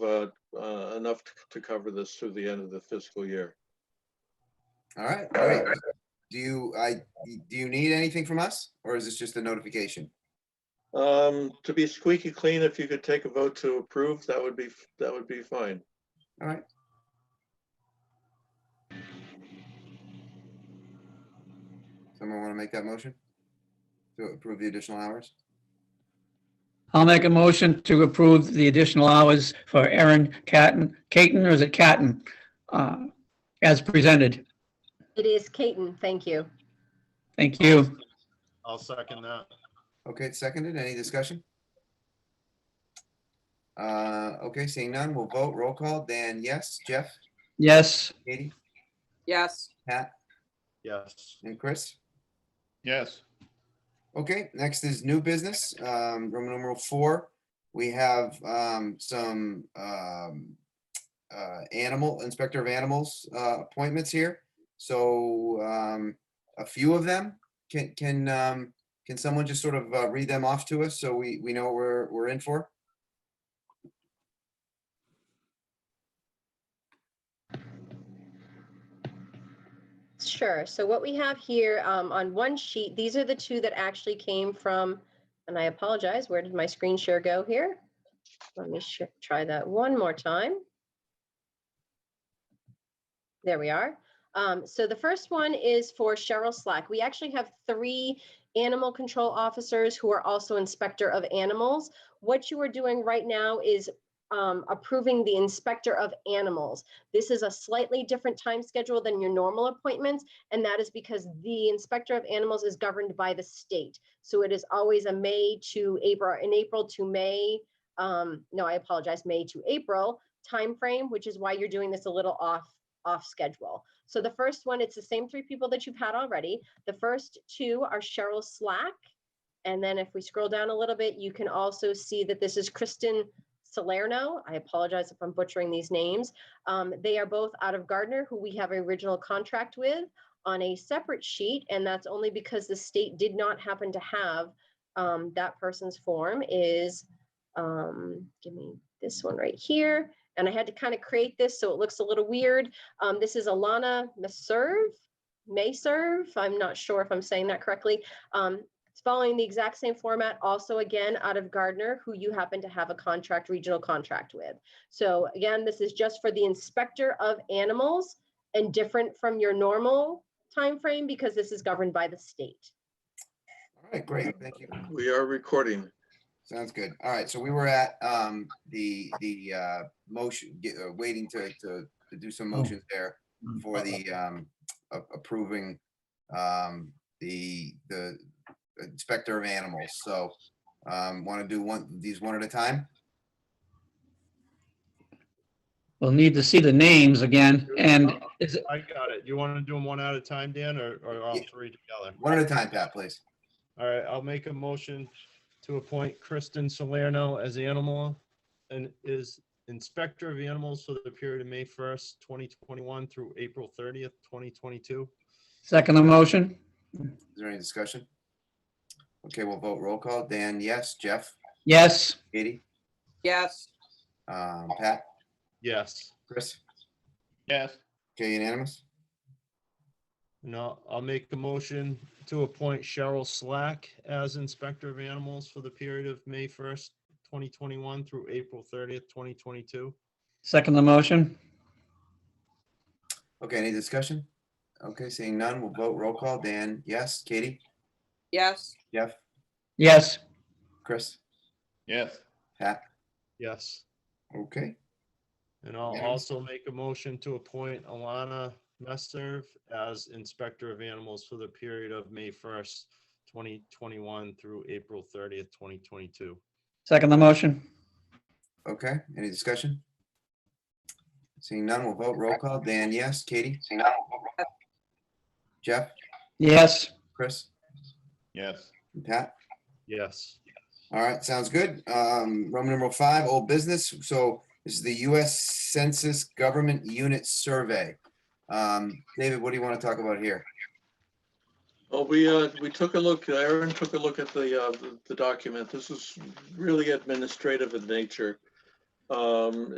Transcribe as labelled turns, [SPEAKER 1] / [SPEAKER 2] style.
[SPEAKER 1] uh, uh, enough to- to cover this through the end of the fiscal year.
[SPEAKER 2] All right, great. Do you, I, do you need anything from us or is this just a notification?
[SPEAKER 1] Um, To be squeaky clean, if you could take a vote to approve, that would be, that would be fine.
[SPEAKER 2] All right. Someone want to make that motion? To approve the additional hours?
[SPEAKER 3] I'll make a motion to approve the additional hours for Erin Catton, Caton, or is it Catton? uh, As presented.
[SPEAKER 4] It is Caton, thank you.
[SPEAKER 3] Thank you.
[SPEAKER 5] I'll second that.
[SPEAKER 2] Okay, it's seconded. Any discussion? Uh, okay, seeing none, we'll vote. Roll call. Dan, yes. Jeff,
[SPEAKER 3] Yes,
[SPEAKER 2] Katie,
[SPEAKER 6] yes,
[SPEAKER 2] Pat,
[SPEAKER 5] Yes.
[SPEAKER 2] and Chris?
[SPEAKER 5] Yes.
[SPEAKER 2] Okay, next is new business, um, Roman numeral four. We have, um, some, um, uh, animal, inspector of animals, uh, appointments here. So, um, a few of them, can, can, um, can someone just sort of, uh, read them off to us so we, we know what we're, we're in for?
[SPEAKER 4] Sure. So what we have here um, on one sheet, these are the two that actually came from, and I apologize, where did my screen share go here? Let me sh- try that one more time. There we are. Um, So the first one is for Cheryl Slack. We actually have three animal control officers who are also inspector of animals. What you are doing right now is um, approving the inspector of animals. This is a slightly different time schedule than your normal appointments, and that is because the inspector of animals is governed by the state. So it is always a May to April, in April to May, um, no, I apologize, May to April timeframe, which is why you're doing this a little off, off schedule. So the first one, it's the same three people that you've had already. The first two are Cheryl Slack. And then if we scroll down a little bit, you can also see that this is Kristen Salerno. I apologize if I'm butchering these names. Um, they are both out of Gardner, who we have an original contract with on a separate sheet, and that's only because the state did not happen to have um, that person's form is, um, give me this one right here. And I had to kind of create this so it looks a little weird. Um, this is Alana Maserve, may serve. I'm not sure if I'm saying that correctly. Um, it's following the exact same format, also again out of Gardner, who you happen to have a contract, regional contract with. So again, this is just for the inspector of animals and different from your normal timeframe because this is governed by the state.
[SPEAKER 2] All right, great. Thank you.
[SPEAKER 1] We are recording.
[SPEAKER 2] Sounds good. All right, so we were at, um, the, the, uh, motion, ge- uh, waiting to, to, to do some motions there for the, um, a- approving, um, the, the inspector of animals. So, um, want to do one, these one at a time?
[SPEAKER 3] we'll need to see the names again. And is,
[SPEAKER 5] I got it. You want to do them one at a time, Dan, or, or all
[SPEAKER 2] Yeah.
[SPEAKER 5] three together?
[SPEAKER 2] One at a time, Pat, please.
[SPEAKER 5] All right, I'll make a motion to appoint Kristen Salerno as animal and is inspector of animals for the period of May first, twenty twenty-one through April thirtieth, twenty twenty-two.
[SPEAKER 3] second the motion?
[SPEAKER 2] Is there any discussion? Okay, we'll vote roll call. Dan, yes. Jeff,
[SPEAKER 3] Yes,
[SPEAKER 2] Katie,
[SPEAKER 6] yes,
[SPEAKER 2] um, Pat,
[SPEAKER 5] Yes.
[SPEAKER 2] Chris,
[SPEAKER 5] Yes.
[SPEAKER 2] okay, unanimous?
[SPEAKER 5] No, I'll make a motion to appoint Cheryl Slack as Inspector of Animals for the period of May first, twenty twenty-one through April thirtieth, twenty twenty-two.
[SPEAKER 3] second the motion?
[SPEAKER 2] Okay, any discussion? Okay, seeing none, we'll vote roll call. Dan, yes. Katie?
[SPEAKER 6] yes,
[SPEAKER 2] Jeff,
[SPEAKER 3] Yes,
[SPEAKER 2] Chris,
[SPEAKER 5] Yes.
[SPEAKER 2] Pat,
[SPEAKER 5] Yes,
[SPEAKER 2] okay,
[SPEAKER 5] and I'll
[SPEAKER 2] Okay.
[SPEAKER 5] also make a motion to appoint Alana Messerv as Inspector of Animals for the period of May first, twenty twenty-one through April thirtieth, twenty twenty-two.
[SPEAKER 3] second the motion?
[SPEAKER 2] okay. Any discussion? Seeing none, we'll vote roll call. Dan, yes. Katie? Seeing none. Jeff,
[SPEAKER 3] Yes,
[SPEAKER 2] Chris,
[SPEAKER 5] Yes.
[SPEAKER 2] and Pat?
[SPEAKER 5] Yes.
[SPEAKER 2] All right, sounds good. Um, Roman numeral five, old business. So this is the US Census Government Unit Survey. Um, David, what do you want to talk about here?
[SPEAKER 1] Well, we, uh, we took a look, Aaron took a look at the, uh, the- the document. This is really administrative in nature. Um,